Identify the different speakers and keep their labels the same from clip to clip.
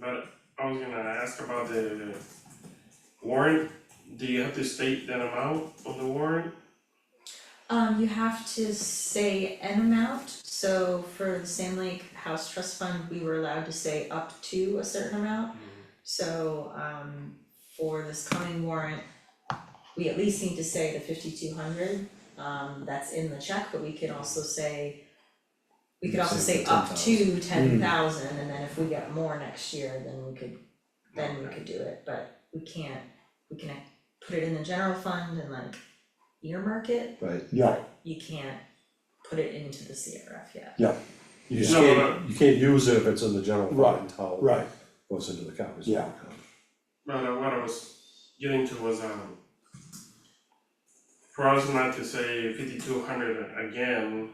Speaker 1: But I was gonna ask about the warrant, do you have to state that amount of the warrant?
Speaker 2: Um, you have to say an amount, so for the Sand Lake House Trust Fund, we were allowed to say up to a certain amount. So, um, for this coming warrant, we at least need to say the fifty-two hundred, um, that's in the check, but we can also say, we could also say up to ten thousand, and then if we get more next year, then we could, then we could do it, but we can't, we can put it in the general fund and like earmark it,
Speaker 3: Right,
Speaker 4: Yeah,
Speaker 2: you can't put it into the CRF yet.
Speaker 3: you just
Speaker 1: No,
Speaker 3: can't, you can't use it if it's in the general
Speaker 4: Right,
Speaker 3: fund until
Speaker 4: right,
Speaker 3: it goes into the conversation.
Speaker 4: Yeah.
Speaker 1: But uh, what I was getting to was um for us not to say fifty-two hundred again,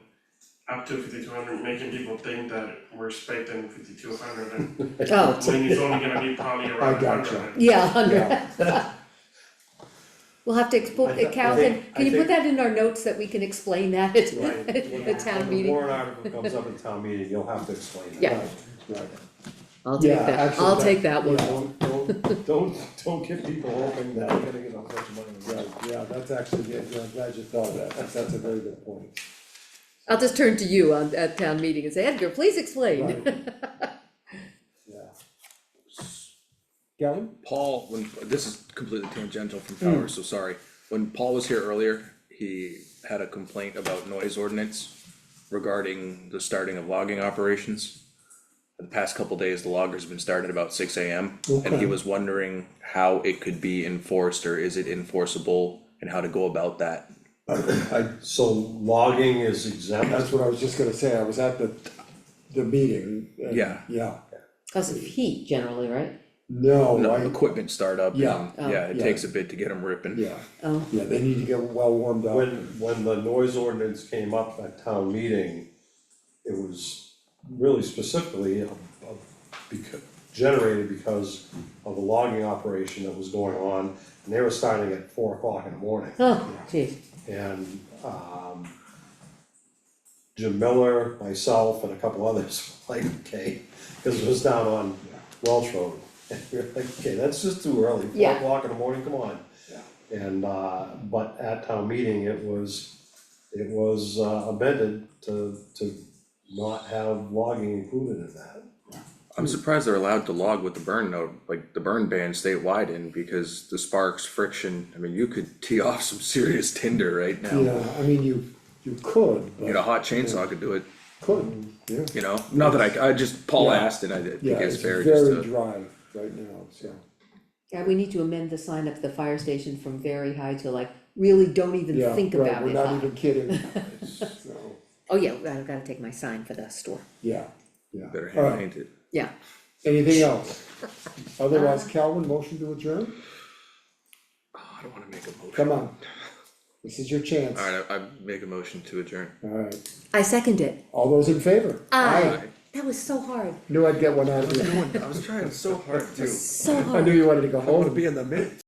Speaker 1: up to fifty-two hundred, making people think that we're expecting fifty-two hundred and
Speaker 5: Oh, it's-
Speaker 1: when it's only gonna be probably around
Speaker 4: I
Speaker 1: hundred.
Speaker 4: gotcha.
Speaker 5: yeah, a hundred.
Speaker 4: yeah,
Speaker 5: We'll have to
Speaker 3: I
Speaker 5: expl-
Speaker 3: thi- I
Speaker 5: Cal, can,
Speaker 3: think- I
Speaker 5: can you put
Speaker 3: think-
Speaker 5: that in our notes that we can explain that at,
Speaker 3: Right.
Speaker 5: at the
Speaker 2: Yeah.
Speaker 5: town
Speaker 3: When the
Speaker 5: meeting?
Speaker 3: warrant article comes up at town meeting, you'll have to explain it.
Speaker 5: Yeah.
Speaker 4: right, right.
Speaker 5: I'll
Speaker 4: Yeah,
Speaker 5: take that,
Speaker 4: actually,
Speaker 5: I'll take that one.
Speaker 3: Don't, don't, don't, don't give people hoping that we're gonna get a bunch of money.
Speaker 4: Right, yeah, that's actually, good. yeah, I'm glad you thought of that, that's, that's a very good point.
Speaker 5: I'll just turn to you on, at town meeting and say, Edgar, please explain.
Speaker 4: Right. Yeah. Gary?
Speaker 6: Paul, when, this is completely tangential from
Speaker 4: Mm.
Speaker 6: power, so sorry. When Paul was here earlier, he had a complaint about noise ordinance regarding the starting of logging operations. The past couple days, the loggers have been starting at about six AM, and
Speaker 4: Okay.
Speaker 6: he was wondering how it could be enforced, or is it enforceable, and how to go about that.
Speaker 3: I, so logging is exempt,
Speaker 4: That's what I was just gonna say, I was at the, the meeting. and-
Speaker 6: Yeah.
Speaker 4: Yeah,
Speaker 5: Cause of heat generally, right?
Speaker 4: no,
Speaker 6: No,
Speaker 4: I,
Speaker 6: equipment startup, and,
Speaker 4: Oh, Yeah. Oh,
Speaker 6: yeah, it
Speaker 4: Yeah.
Speaker 6: takes a bit to get them ripping.
Speaker 4: yeah,
Speaker 5: Oh,
Speaker 4: yeah, they need to get well warmed up.
Speaker 3: When, when the noise ordinance came up at town meeting, it was really specifically a- a- becau- generated because of the logging operation that was going on, and they were starting at four o'clock in the morning.
Speaker 5: oh, geez,
Speaker 3: And, um, Jim Miller, myself, and a couple others, were like, okay, cause it was down on Welsh Road. And we were like, okay, that's just too early, four
Speaker 5: Yeah.
Speaker 3: o'clock in the morning, come on.
Speaker 4: Yeah.
Speaker 3: And, uh, but at town meeting, it was, it was uh, amended to, to not have logging included in that.
Speaker 4: Hmm.
Speaker 6: I'm surprised they're allowed to log with the burn note, like the burn ban statewide in, because the sparks, friction, I mean, you could tee off some serious tinder right now.
Speaker 4: Yeah, I mean, you, you could,
Speaker 6: You know,
Speaker 4: but
Speaker 6: a hot chainsaw could do it,
Speaker 4: could, yeah,
Speaker 6: you know, not that I, I just, Paul
Speaker 4: Yeah.
Speaker 6: asked and I think
Speaker 4: yeah,
Speaker 6: it's
Speaker 4: it's
Speaker 6: fair
Speaker 4: very
Speaker 6: just to.
Speaker 4: dry right now, so,
Speaker 5: yeah, we need to amend the sign up at the fire station from very high to like, really don't even
Speaker 4: yeah,
Speaker 5: think
Speaker 4: right,
Speaker 5: about
Speaker 4: we're
Speaker 5: it.
Speaker 4: not
Speaker 5: high.
Speaker 4: even kidding, so,
Speaker 5: Oh, yeah, I've gotta take my sign for the store,
Speaker 4: yeah, yeah.
Speaker 6: Better
Speaker 4: All
Speaker 6: hand
Speaker 4: right.
Speaker 6: paint it.
Speaker 5: yeah.
Speaker 4: Anything else? Otherwise, Calvin, motion to adjourn?
Speaker 6: Oh, I don't wanna make a motion.
Speaker 4: Come on. This is your chance.
Speaker 6: Alright, I, I make a motion to adjourn.
Speaker 4: All right.
Speaker 5: I second it,
Speaker 4: All those in favor?
Speaker 5: I, that was so hard,
Speaker 4: Knew I'd get one out of you.
Speaker 6: I was trying so hard to,
Speaker 5: so
Speaker 4: I
Speaker 5: hard.
Speaker 4: knew you wanted to go home.
Speaker 6: be in the mid.